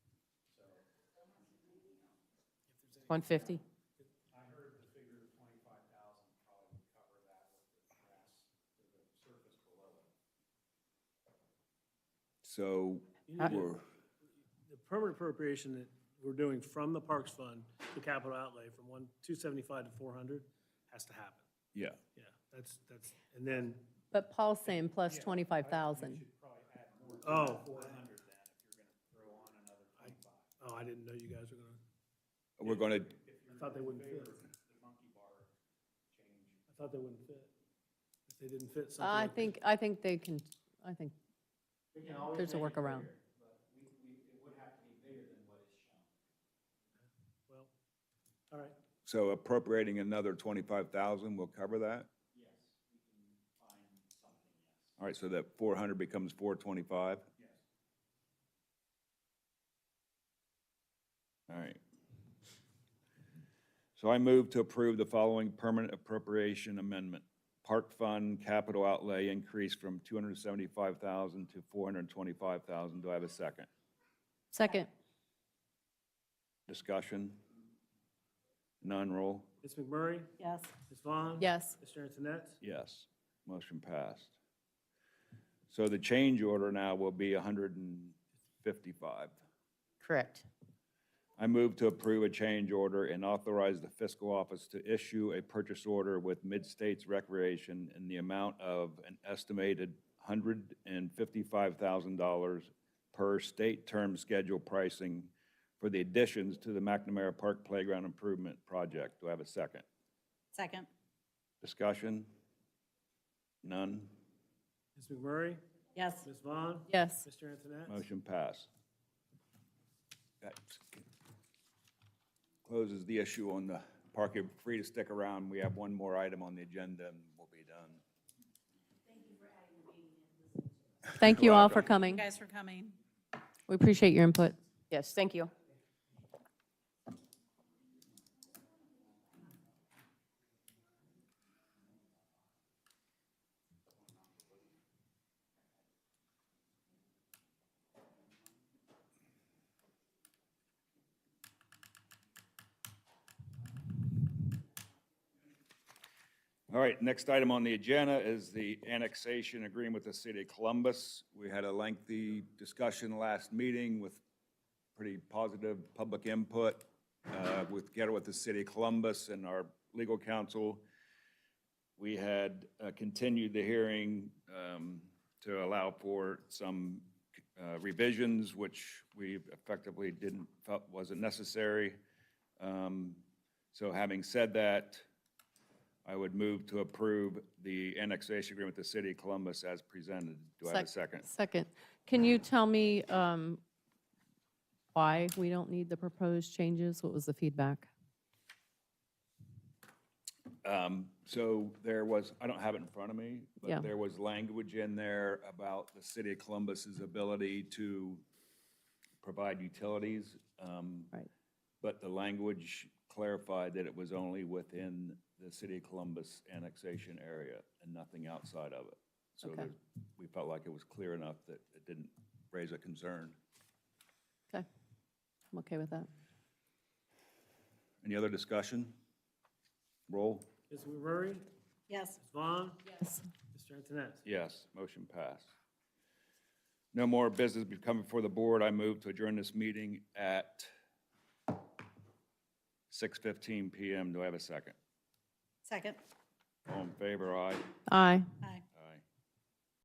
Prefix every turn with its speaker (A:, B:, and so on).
A: 150?
B: So,
A: Uh,
B: we're,
C: The permanent appropriation that we're doing from the Parks Fund to capital outlay from one, two seventy-five to four hundred has to happen.
B: yeah,
C: Yeah, that's, that's, and then,
A: But Paul's saying plus 25,000.
C: oh. Oh, I didn't know you guys were gonna,
B: we're gonna,
C: I thought they wouldn't fit. I thought they wouldn't fit. If they didn't fit something
A: I
C: like this.
A: think, I think they can, I think there's a workaround.
C: Well, all right.
B: so appropriating another twenty-five thousand will cover that? All right, so that four hundred becomes four twenty-five? All right. So I move to approve the following permanent appropriation amendment. Park Fund capital outlay increase from two hundred seventy-five thousand to four hundred twenty-five thousand. Do I have a second?
A: Second,
B: Discussion? None, roll.
C: Ms. McMurray?
A: yes.
C: Ms. Vaughn?
A: Yes,
C: Mr. Antoinette?
B: Yes, motion passed. So the change order now will be 155.
A: correct.
B: I move to approve a change order and authorize the fiscal office to issue a purchase order with Mid-States Recreation in the amount of an estimated $155,000 per state term schedule pricing for the additions to the McNamara Park Playground Improvement Project. Do I have a second?
D: Second.
B: Discussion? None?
C: Ms. McMurray?
D: Yes.
C: Ms. Vaughn?
A: Yes,
C: Mr. Antoinette?
B: Motion passed. That closes the issue on the park. You're free to stick around. We have one more item on the agenda and we'll be done.
A: thank you all for
B: welcome.
A: coming.
D: Guys for coming.
A: We appreciate your input. Yes, thank you.
B: All right, next item on the agenda is the annexation agreement with the city of Columbus. We had a lengthy discussion last meeting with pretty positive public input uh, with, together with the city of Columbus and our legal counsel. We had uh, continued the hearing um, to allow for some uh, revisions, which we effectively didn't, felt wasn't necessary. Um, So having said that, I would move to approve the annexation agreement with the city of Columbus as presented. Do I have a second?
A: Second, can you tell me um, why we don't need the proposed changes? What was the feedback?
B: Um, So there was, I don't have it in front of me,
A: Yeah.
B: but there was language in there about the city of Columbus's ability to provide utilities. um,
A: Right.
B: But the language clarified that it was only within the city of Columbus annexation area and nothing outside of it. So
A: Okay.
B: there's- we felt like it was clear enough that it didn't raise a concern.
A: Okay, I'm okay with that.
B: Any other discussion? Roll.
C: Ms. McMurray?
D: Yes.
C: Ms. Vaughn?
A: Yes.
C: Mr. Antoinette?
B: Yes, motion passed. No more business be- coming before the board. I move to adjourn this meeting at 6:15 PM. Do I have a second?
D: Second.
B: All in favor, aye.
A: Aye.